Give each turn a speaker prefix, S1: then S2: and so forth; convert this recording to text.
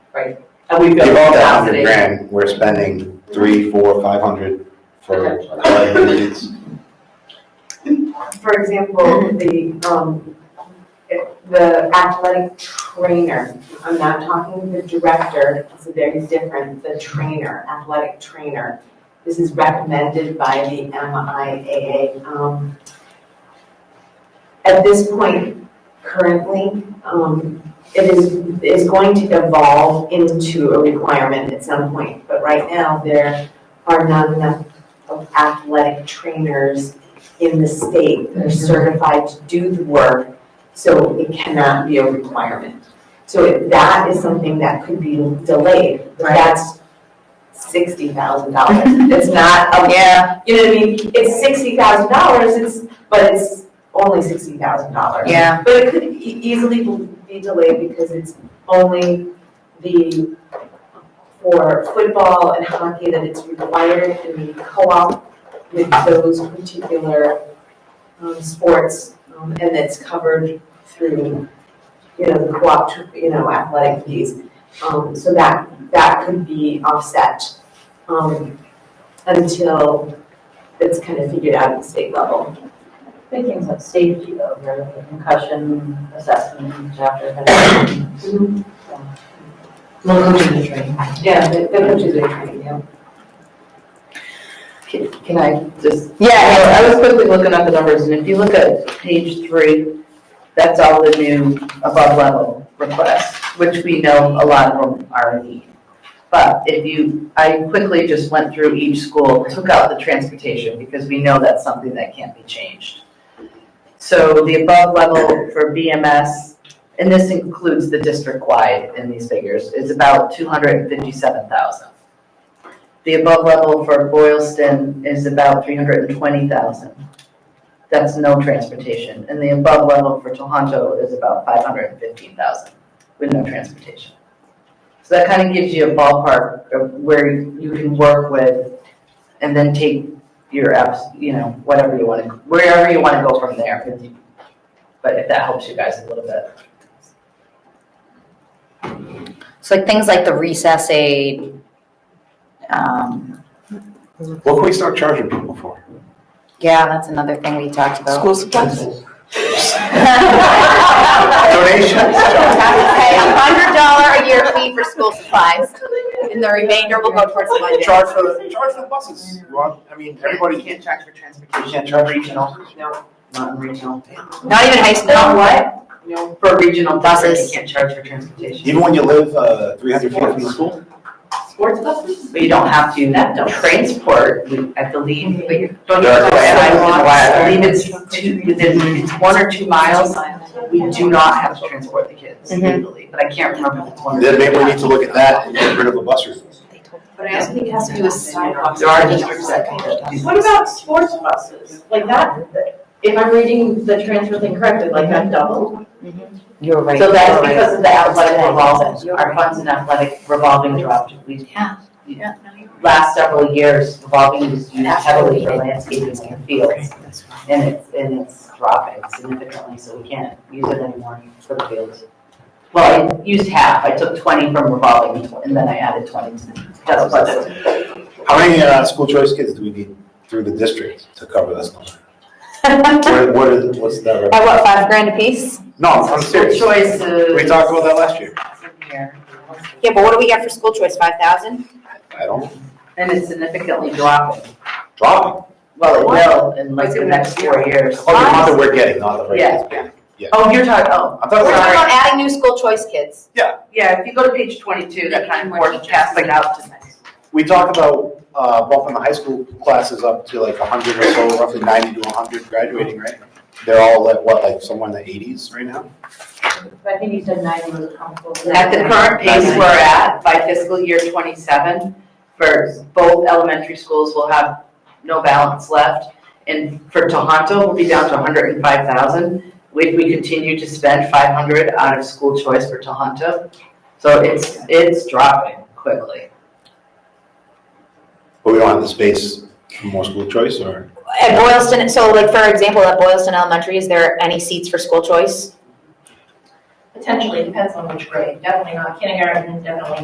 S1: right? And we build
S2: Give all that hundred
S1: capacity.
S2: grand, we're spending three, four, five hundred for our needs.
S3: For example, the, um, the athletic trainer, I'm not talking the director, so there's different, the trainer, athletic trainer. This is recommended by the MIAA. Um, At this point, currently, um, it is, is going to evolve into a requirement at some point. But right now, there are not enough of athletic trainers in the state that are certified to do the work, so it cannot be a requirement. So if that is something that could be delayed, but
S1: Right.
S3: that's sixty thousand dollars. It's not, a-
S1: Yeah,
S3: you know what I mean? It's sixty thousand dollars, it's, but it's only sixty thousand dollars.
S1: yeah.
S3: But it could e- easily be delayed because it's only the, for football and hockey that it's required and we co-op with those particular um, sports, um, and it's covered through, you know, the co-op, you know, athletic fees. Um, So that, that could be offset um, until it's kind of figured out at the state level.
S1: Big things like safety though, really, the concussion assessment chapter. kind of
S4: Mm-hmm.
S1: thing. Well, coaching is training.
S3: Yeah, the the coaches are trying, yeah.
S5: Can I just? Yeah. I was quickly looking at the numbers, and if you look at page three, that's all the new above level requests, which we know a lot of them are in need. But if you, I quickly just went through each school, took out the transportation, because we know that's something that can't be changed. So the above level for BMS, and this includes the district-wide in these figures, is about two hundred and fifty-seven thousand. The above level for Boylston is about three hundred and twenty thousand. That's no transportation. And the above level for Tohoto is about five hundred and fifteen thousand with no transportation. So that kind of gives you a ballpark of where you can work with and then take your apps, you know, whatever you want to, wherever you want to go from there. But if that helps you guys a little bit.
S6: So like things like the recess aid, um,
S2: What can we start charging people for?
S6: yeah, that's another thing we talked about.
S4: School supplies.
S2: Donations, charge.
S6: Pay a hundred dollar a year fee for school supplies, and the remainder will go towards lunch.
S2: charge for, the- charge for the buses. You want- I mean, everybody can't,
S5: can't charge for transportation.
S2: you can't charge regional.
S5: Not in regional.
S6: Not even high
S5: Not
S6: school.
S5: what?
S3: No.
S5: For regional buses,
S6: Buses.
S5: you can't charge for transportation.
S2: Even when you live, uh, three hundred feet from the school?
S3: Sports buses?
S5: But you don't have to
S3: That don't- Mm-hmm.
S5: transport, we- I believe, but you don't
S2: There are
S5: have to I
S2: sidewalks.
S5: believe it's two, within, it's one or two miles. We do not have to transport the kids
S3: Mm-hmm.
S6: Mhm.
S5: legally, but I can't remember if it's one or
S2: Then
S5: two.
S2: maybe we need to look at that and get rid of the bus route.
S3: But I also think it has to do with sidewalks.
S5: There are districts that can do
S4: What about sports buses? Like that, if I'm reading the transfer thing correctly, like that doubled?
S6: You're right.
S5: So that's because of the athletic revolving, our funds in athletic revolving dropped. We have, last several years, revolving was used heavily for landscaping and fields. And it's, and it's dropping significantly, so we can't use it anymore for the fields. Well, I used half, I took twenty from revolving and then I added twenty to the test budget.
S2: How many, uh, school choice kids do we need through the district to cover this number? What, what is, what's that?
S6: At
S2: rep-
S6: what, five grand a piece?
S2: No, I'm serious.
S5: School choices.
S2: We talked about that last year.
S5: Here.
S6: Yeah, but what do we get for school choice, five thousand?
S2: I don't,
S5: And it's significantly dropping.
S2: drop
S5: Well, it will in like the next four years.
S2: it. Oh, the amount that we're getting, not the rate that's getting.
S5: Oh, you're talking, oh,
S2: I thought,
S6: We're
S2: it
S6: talking
S2: was-
S6: about adding new school choice kids.
S5: Yeah, if you go to page twenty-two, that kind of forecasts it out to next.
S2: we talked about, uh, bumping the high school classes up to like hundred or so, roughly ninety to hundred graduating, right? They're all at what, like somewhere in the eighties right now?
S4: I think you said ninety was comfortable.
S5: At the current pace we're at, by fiscal year twenty-seven, for both elementary schools will have no balance left. And for Tohoto, we'll be down to hundred and five thousand. If we continue to spend five hundred out of school choice for Tohoto, so it's, it's dropping quickly.
S2: But we don't have the space for more school choice or?
S6: At Boylston, so like, for example, at Boylston Elementary, is there any seats for school choice?
S4: Potentially, depends on which grade, definitely not kindergarten, definitely